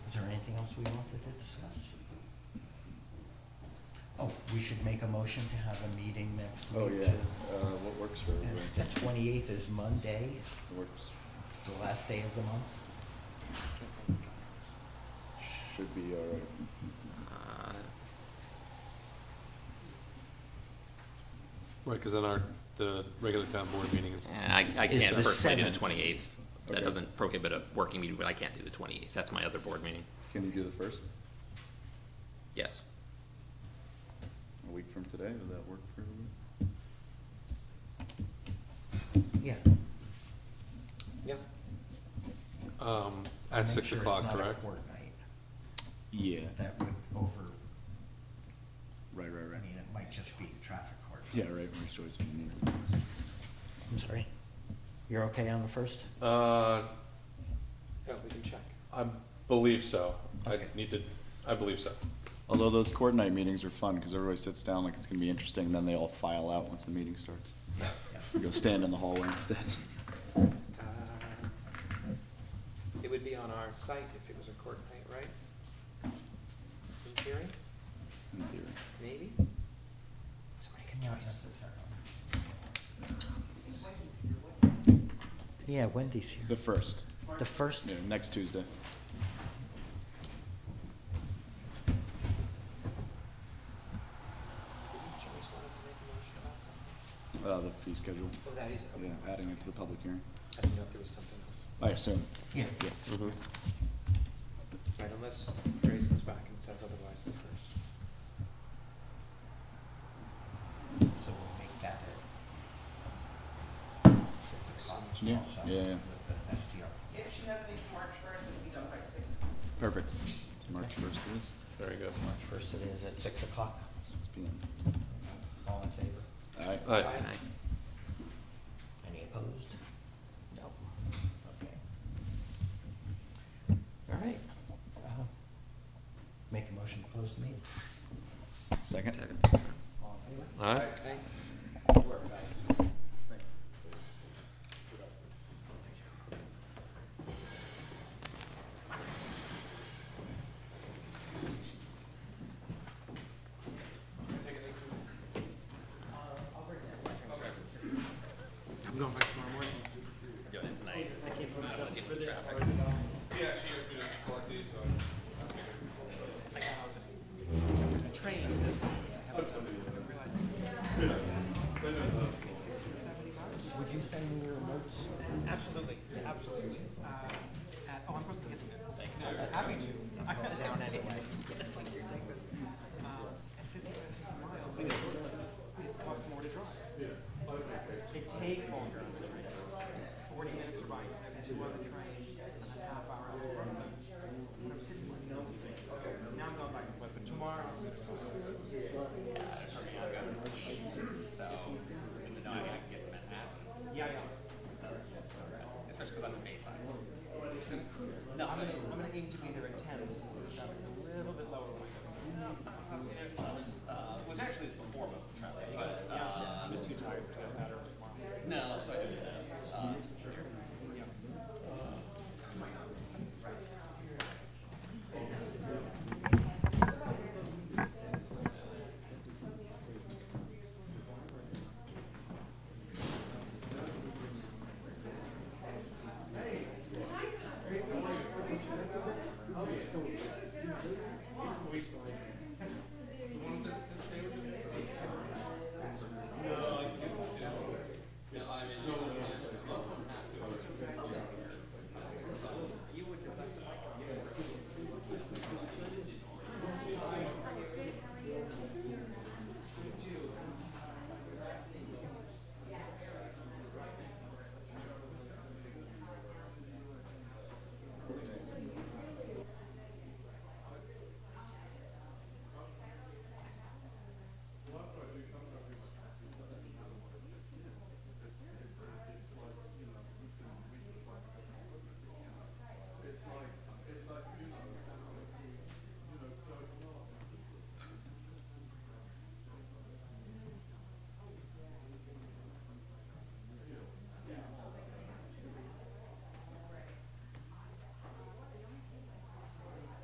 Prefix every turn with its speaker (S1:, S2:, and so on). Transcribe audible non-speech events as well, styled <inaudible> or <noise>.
S1: anything else we wanted to discuss? Oh, we should make a motion to have a meeting next
S2: Oh,
S1: week
S2: yeah,
S1: too.
S2: uh, what works for
S1: And
S2: everybody?
S1: it's the twenty-eighth is Monday,
S2: Works,
S1: it's the last day of the month.
S2: should be all right.
S3: Uh,
S4: Right, because then our, the regular town board meeting is,
S3: and I, I
S1: It's
S3: can't
S1: the
S3: personally do the
S1: 7th.
S3: twenty-eighth. That
S2: Okay.
S3: doesn't prohibit a working meeting, but I can't do the twenty-eighth. That's my other board meeting.
S2: Can you do the first,
S3: Yes.
S2: a week from today, would that work for everybody?
S1: Yeah.
S3: Yep.
S4: um, at
S1: Make
S4: six
S1: sure it's
S4: o'clock,
S1: not a
S4: correct?
S1: court night.
S2: Yeah.
S1: That would over,
S2: Right, right,
S1: I
S2: right.
S1: mean, it might just be traffic court.
S2: Yeah, right, Mary's Joyce, we need
S1: I'm sorry. You're okay on the first?
S4: Uh,
S5: Yeah, we can check.
S4: I believe so. I
S1: Okay.
S4: need to, I believe so.
S2: Although those coordinate meetings are fun, because everybody sits down like it's gonna be interesting, then they all file out once the meeting starts.
S1: Yeah.
S2: You Go stand in the hallway instead. <laughs>
S5: Uh, It would be on our site if it was a court night, right? In theory,
S2: In theory.
S5: maybe? Somebody make a
S1: Not
S5: choice.
S1: necessarily. Yeah, Wendy's
S2: The
S1: here.
S2: first,
S1: The first,
S2: yeah, next Tuesday.
S5: Didn't Joyce want us to make a motion about something?
S2: Uh, the fee schedule,
S5: Oh, that is,
S2: yeah,
S5: okay.
S2: adding it to the public hearing,
S5: I didn't know if there was something else.
S2: I assume.
S1: yeah,
S2: Yeah.
S5: Right, unless Joyce comes back and says otherwise the first.
S1: so we'll make that at six o'clock
S2: Yeah,
S1: also
S2: yeah, yeah.
S1: with the STR.
S6: If she has me March first, it'll be done by six.
S2: Perfect. March first it is,
S4: Very good.
S1: March first it is at six o'clock.
S2: six P
S1: All in favor?
S2: M.
S4: All right,
S5: Aye.
S1: Any opposed? No. Okay. All right. Uh, Make a motion to close the meeting.
S2: Second?
S1: All in favor?
S4: all right.
S5: Okay. I'm going back tomorrow morning.
S1: Would you send me your notes?
S5: Absolutely, absolutely. Uh, at- Oh, I'm supposed to get them. Thanks. Happy to. I got down anyway. Here, take this. Uh, At fifty-five, sixty miles, it costs more to drive. It takes longer. Forty minutes to ride, and you want to do